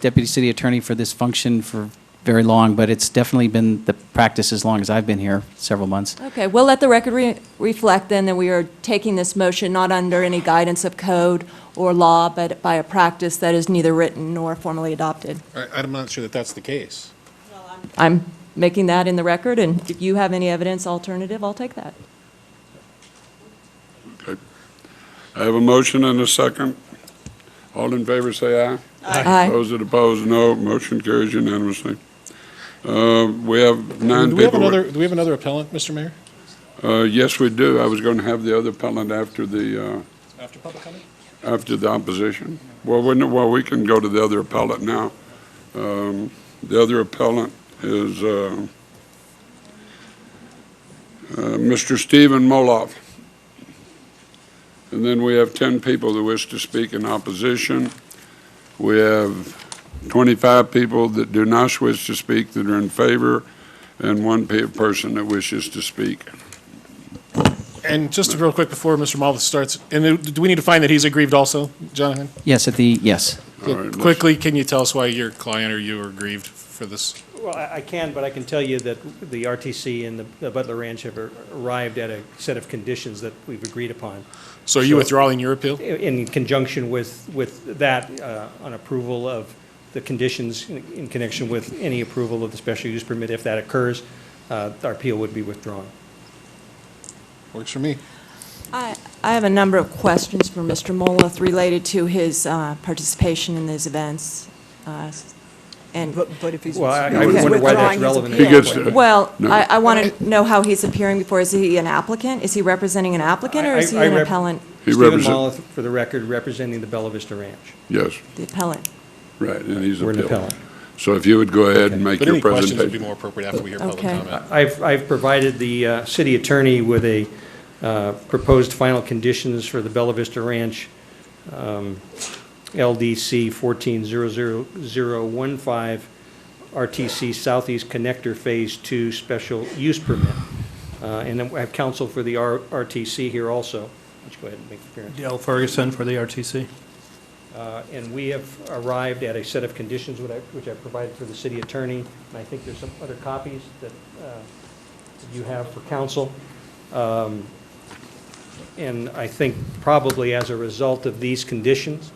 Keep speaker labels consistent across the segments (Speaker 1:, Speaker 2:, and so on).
Speaker 1: deputy city attorney for this function for very long, but it's definitely been the practice as long as I've been here, several months.
Speaker 2: Okay, we'll let the record re- reflect then that we are taking this motion not under any guidance of code or law, but by a practice that is neither written nor formally adopted.
Speaker 3: I, I'm not sure that that's the case.
Speaker 2: I'm making that in the record, and if you have any evidence alternative, I'll take that.
Speaker 4: I have a motion and a second. All in favor, say aye.
Speaker 2: Aye.
Speaker 4: Those that oppose, no. Motion carries unanimously. Uh, We have nine
Speaker 3: Do we have
Speaker 4: people.
Speaker 3: another, do we have another appellant, Mr. Mayor?
Speaker 4: Uh, Yes, we do. I was going to have the other appellant after the, uh,
Speaker 3: After public comment?
Speaker 4: after the opposition. Well, we, well, we can go to the other appellant now. Um, The other appellant is uh, uh, Mr. Stephen Moloff. And then we have 10 people that wish to speak in opposition. We have 25 people that do not wish to speak that are in favor, and one pe- person that wishes to speak.
Speaker 3: And just real quick before Mr. Malvis starts, and do we need to find that he's aggrieved also, Jonathan?
Speaker 1: Yes, at the, yes.
Speaker 4: All right, let's-
Speaker 3: Quickly, can you tell us why your client or you are aggrieved for this?
Speaker 5: Well, I I can, but I can tell you that the RTC and the- the Butler Ranch have ar- arrived at a set of conditions that we've agreed upon.
Speaker 3: So are you
Speaker 5: Sure.
Speaker 3: withdrawing your appeal?
Speaker 5: I- In conjunction with, with that, uh, on approval of the conditions in in connection with any approval of the special use permit, if that occurs, uh, our appeal would be withdrawn.
Speaker 3: Works for me.
Speaker 2: I I have a number of questions for Mr. Moloff related to his uh, participation in these events. uh, And,
Speaker 6: But, but if he's.
Speaker 5: Well, I-
Speaker 4: I
Speaker 6: he's
Speaker 4: wonder why
Speaker 6: withdrawing
Speaker 5: that's
Speaker 6: his
Speaker 5: relevant.
Speaker 6: appeal.
Speaker 4: He gets to-
Speaker 2: well,
Speaker 4: No.
Speaker 2: I want to know how he's appearing before. Is he an applicant? Is he representing an applicant, or
Speaker 5: I-
Speaker 2: is he
Speaker 5: I- I
Speaker 2: an
Speaker 5: rep-
Speaker 2: appellant?
Speaker 4: He
Speaker 5: Stephen
Speaker 4: represent-
Speaker 5: Mollis, for the record, representing the Bella Vista Ranch.
Speaker 4: Yes,
Speaker 2: The appellant.
Speaker 4: right, and he's
Speaker 5: We're an
Speaker 4: appealing.
Speaker 5: appellant.
Speaker 4: So if you would go ahead and make
Speaker 3: But
Speaker 4: your
Speaker 3: any questions would be
Speaker 4: presentation.
Speaker 3: more appropriate after we hear public
Speaker 2: Okay.
Speaker 3: comment.
Speaker 5: uh, I've, I've provided the uh, city attorney with a uh, proposed final conditions for the Bella Vista Ranch um, LDC 1400015 RTC Southeast Connector Phase 2 Special Use Permit. Uh, And then I have counsel for the R- RTC here also. Let's go ahead and make the appearance.
Speaker 7: Dale Ferguson for the RTC.
Speaker 5: Uh, And we have arrived at a set of conditions which I which I provided for the city attorney, and I think there's some other copies that uh, that you have for council. Um, And I think probably as a result of these conditions,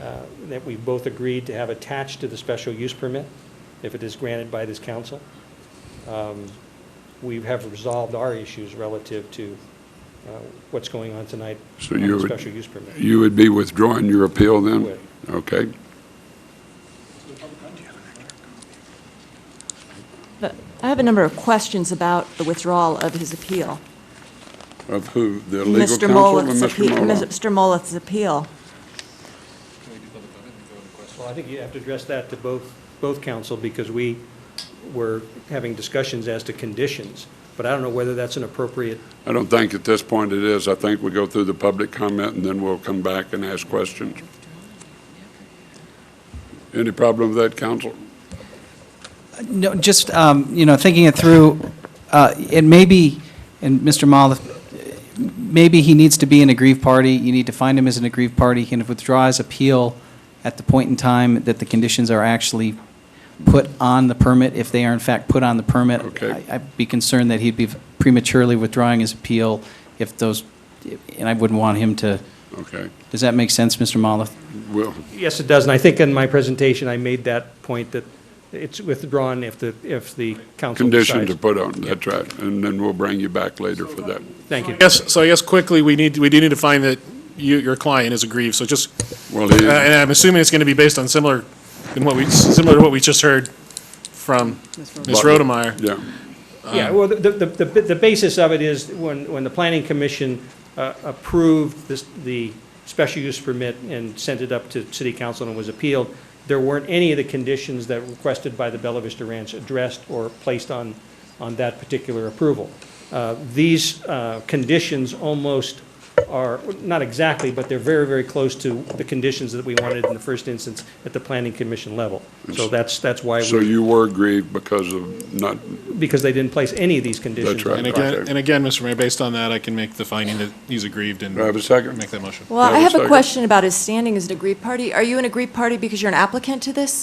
Speaker 5: uh, that we both agreed to have attached to the special use permit, if it is granted by this council, um, we have resolved our issues relative to uh, what's going on tonight
Speaker 4: So
Speaker 5: on
Speaker 4: you
Speaker 5: the
Speaker 4: would-
Speaker 5: special use permit.
Speaker 4: You would be withdrawing your appeal then?
Speaker 5: Would.
Speaker 4: Okay.
Speaker 2: But I have a number of questions about the withdrawal of his appeal.
Speaker 4: Of who? The legal
Speaker 2: Mr.
Speaker 4: counsel or
Speaker 2: Moloff's
Speaker 4: Mr.
Speaker 2: appeal.
Speaker 4: Moloff?
Speaker 2: Mr. Moloff's appeal.
Speaker 5: Well, I think you have to address that to both, both council, because we were having discussions as to conditions, but I don't know whether that's an appropriate,
Speaker 4: I don't think at this point it is. I think we go through the public comment and then we'll come back and ask questions. Any problem with that, counsel?
Speaker 1: No, just, um, you know, thinking it through, uh, it may be, and Mr. Moloff, maybe he needs to be an aggrieved party, you need to find him as an aggrieved party, he can withdraw his appeal at the point in time that the conditions are actually put on the permit, if they are in fact put on the permit.
Speaker 4: Okay.
Speaker 1: I- I'd be concerned that he'd be prematurely withdrawing his appeal if those, and I wouldn't want him to,
Speaker 4: Okay.
Speaker 1: does that make sense, Mr. Moloff?
Speaker 4: Well,
Speaker 5: yes, it does, and I think in my presentation, I made that point that it's withdrawn if the, if the council
Speaker 4: condition
Speaker 5: decides.
Speaker 4: to put on, that's right. And then we'll bring you back later for that.
Speaker 5: Thank you.
Speaker 3: Yes, so I guess quickly, we need, we do need to find that you, your client is aggrieved, so just,
Speaker 4: Well,
Speaker 3: uh, and
Speaker 4: he,
Speaker 3: I'm assuming it's going to be based on similar, in what we, similar to what we just heard from Ms.
Speaker 4: Butler.
Speaker 3: Rodemeyer.
Speaker 4: yeah. Um,
Speaker 5: Yeah, well, the, the, the the basis of it is when, when the planning commission uh, approved this, the special use permit and sent it up to city council and was appealed, there weren't any of the conditions that requested by the Bella Vista Ranch addressed or placed on, on that particular approval. Uh, These uh, conditions almost are, not exactly, but they're very, very close to the conditions that we wanted in the first instance at the planning commission level. So that's, that's why,
Speaker 4: So
Speaker 5: we
Speaker 4: you were aggrieved because of not,
Speaker 5: because they didn't place any of these conditions.
Speaker 4: right.
Speaker 3: And again,
Speaker 4: Okay.
Speaker 3: and again, Mr. Mayor, based on that, I can make the finding that he's aggrieved and.
Speaker 4: Do I have a second?
Speaker 3: Make that motion.
Speaker 2: Well,
Speaker 4: Yeah,
Speaker 2: I
Speaker 4: it
Speaker 2: have
Speaker 4: looks
Speaker 2: a
Speaker 4: like it.
Speaker 2: question about his standing as an aggrieved party. Are you an aggrieved party because you're an applicant to this?